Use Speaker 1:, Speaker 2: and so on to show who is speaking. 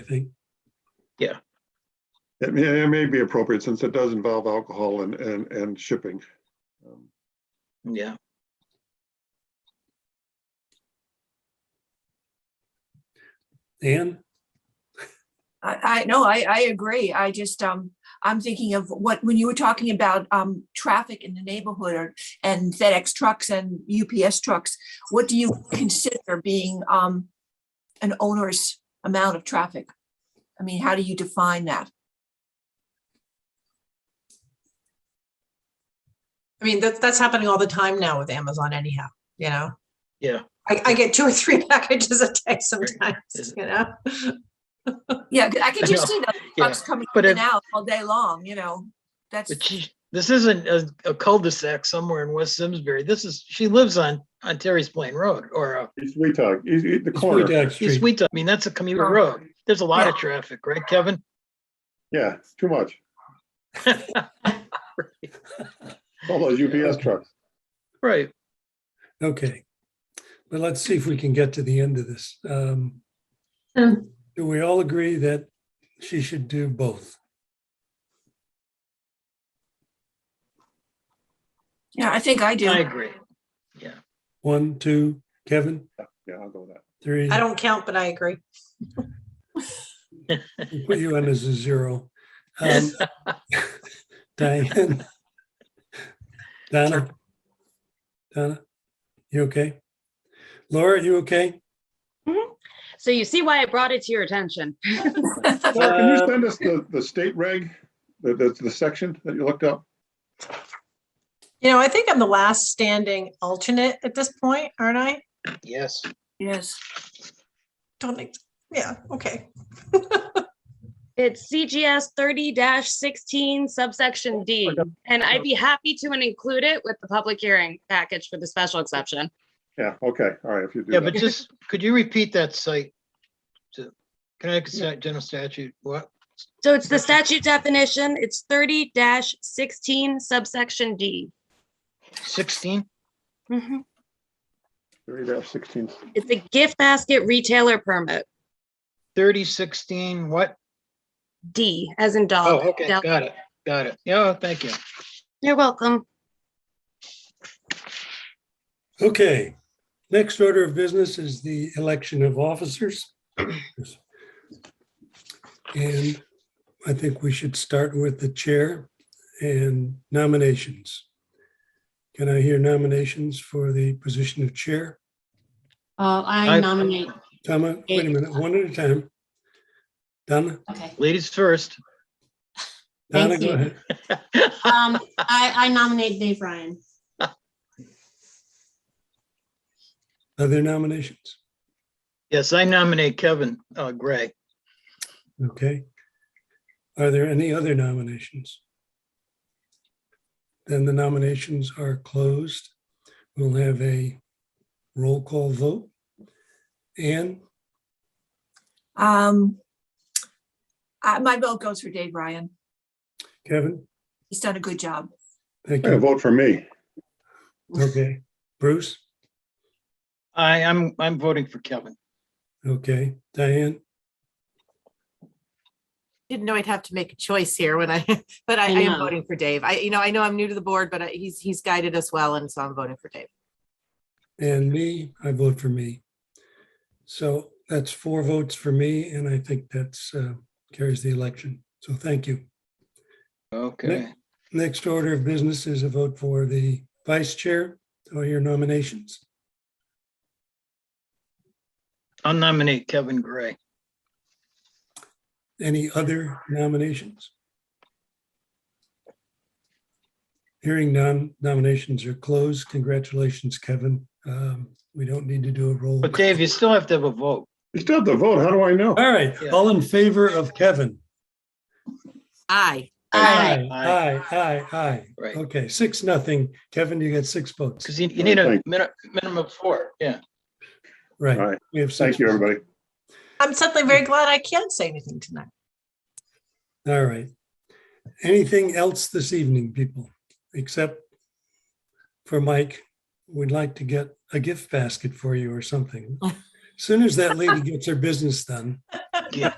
Speaker 1: I think.
Speaker 2: It may, it may be appropriate since it does involve alcohol and, and, and shipping. Um,
Speaker 3: Yeah,
Speaker 1: Anne,
Speaker 4: I, I, no, I, I agree. I just, um, I'm thinking of what, when you were talking about, um, traffic in the neighborhood or, and FedEx trucks and UPS trucks, what do you consider being, um, an onerous amount of traffic? I mean, how do you define that?
Speaker 5: I mean, that's, that's happening all the time now with Amazon anyhow, you know?
Speaker 3: yeah.
Speaker 5: I, I get two or three packages a day sometimes, you know?
Speaker 4: Yeah, 'cause I can just see those
Speaker 3: yeah.
Speaker 4: trucks coming
Speaker 3: But
Speaker 4: in and
Speaker 3: if-
Speaker 4: out all day long, you know, that's,
Speaker 3: But she, this isn't a, a cul-de-sac somewhere in West Simsbury. This is, she lives on, on Terry's Plain Road or uh,
Speaker 2: East Wheaton, East- East- the
Speaker 1: it's
Speaker 2: corner,
Speaker 1: Wheaton
Speaker 3: East
Speaker 1: Street.
Speaker 3: Wheaton. I mean, that's a commuter
Speaker 4: Oh.
Speaker 3: road. There's a lot of
Speaker 4: Yeah.
Speaker 3: traffic, right, Kevin?
Speaker 2: yeah, it's too much. All those UPS trucks.
Speaker 3: Right.
Speaker 1: Okay. But let's see if we can get to the end of this. Um,
Speaker 5: Hmm.
Speaker 1: Do we all agree that she should do both?
Speaker 4: yeah, I think I do.
Speaker 3: I agree. Yeah.
Speaker 1: One, two, Kevin,
Speaker 2: Yeah, I'll go with that.
Speaker 1: three.
Speaker 5: I don't count, but I agree.
Speaker 1: We'll Put you on as a zero. Um, Diane. Donna. Donna, you okay? Laura, you okay?
Speaker 6: So you see why I brought it to your attention.
Speaker 2: Laura, can you
Speaker 1: Uh,
Speaker 2: send us the, the state reg, the, the, the section that you looked up?
Speaker 5: You know, I think I'm the last standing alternate at this point, aren't I?
Speaker 3: Yes.
Speaker 4: Yes.
Speaker 5: Don't, ex- yeah, okay.
Speaker 6: It's CGS thirty sixteen subsection D. And I'd be happy to include it with the public hearing package for the special exception.
Speaker 2: Yeah, okay, all right, if you do
Speaker 3: Yeah, but
Speaker 2: that.
Speaker 3: just, could you repeat that site? to Connecticut Stat- General Statute, what?
Speaker 6: So it's the statute definition. It's thirty sixteen subsection D.
Speaker 3: 16?
Speaker 7: Mm-hmm.
Speaker 6: Mhm.
Speaker 2: Three dash sixteen,
Speaker 6: It's a gift basket retailer permit,
Speaker 3: 30, 16, what?
Speaker 6: D as in
Speaker 4: Um,
Speaker 3: Oh,
Speaker 6: dog.
Speaker 3: okay,
Speaker 6: Del-
Speaker 3: got it, got it. Yeah, thank you.
Speaker 6: You're welcome.
Speaker 1: Okay, next order of business is the election of officers. And I think we should start with the chair and nominations. Can I hear nominations for the position of chair?
Speaker 8: Uh,
Speaker 3: I-
Speaker 8: I nominate,
Speaker 1: Donna, wait a minute, one at a time. Donna,
Speaker 8: okay.
Speaker 3: Ladies first.
Speaker 1: Donna,
Speaker 8: Thank
Speaker 1: go
Speaker 8: you.
Speaker 1: ahead.
Speaker 8: Um, I, I nominate Dave Ryan.
Speaker 1: Other nominations?
Speaker 3: Yes, I nominate Kevin uh, Gray.
Speaker 1: Okay. Are there any other nominations? Then the nominations are closed. We'll have a roll call vote. Anne,
Speaker 4: Um, I, my vote goes for Dave Ryan.
Speaker 1: Kevin,
Speaker 4: He's done a good job.
Speaker 1: thank
Speaker 2: Yeah,
Speaker 1: you.
Speaker 2: vote for me.
Speaker 1: Okay. Bruce,
Speaker 3: I, I'm, I'm voting for Kevin.
Speaker 1: okay. Diane,
Speaker 7: didn't know I'd have to make a choice here when I, but I,
Speaker 8: I
Speaker 7: I am
Speaker 8: know.
Speaker 7: voting for Dave. I, you know, I know I'm new to the board, but I- he's, he's guided us well, and so I'm voting for Dave.
Speaker 1: and me, I vote for me. So that's four votes for me, and I think that's uh, carries the election. So thank you.
Speaker 3: Okay.
Speaker 1: Next order of business is a vote for the vice chair. Or your nominations?
Speaker 3: I'll nominate Kevin Gray.
Speaker 1: Any other nominations? Hearing none, nominations are closed. Congratulations, Kevin. Um, We don't need to do a roll.
Speaker 3: But Dave, you still have to have a vote.
Speaker 2: You still have to vote, how do I know?
Speaker 1: All right, all in favor of Kevin?
Speaker 7: Aye.
Speaker 8: Aye.
Speaker 1: Aye, aye, aye.
Speaker 3: Right.
Speaker 1: Okay, six, nothing. Kevin, you got six votes.
Speaker 3: Because you, you need a
Speaker 2: Thank-
Speaker 3: minimum, minimum of four, yeah.
Speaker 2: All
Speaker 1: Right.
Speaker 2: right,
Speaker 1: We have six
Speaker 2: thank you,
Speaker 1: votes.
Speaker 2: everybody.
Speaker 5: I'm suddenly very glad I can't say anything tonight.
Speaker 1: All right. Anything else this evening, people, except for Mike, we'd like to get a gift basket for you or something. Soon as that lady gets her business done,
Speaker 3: Yeah.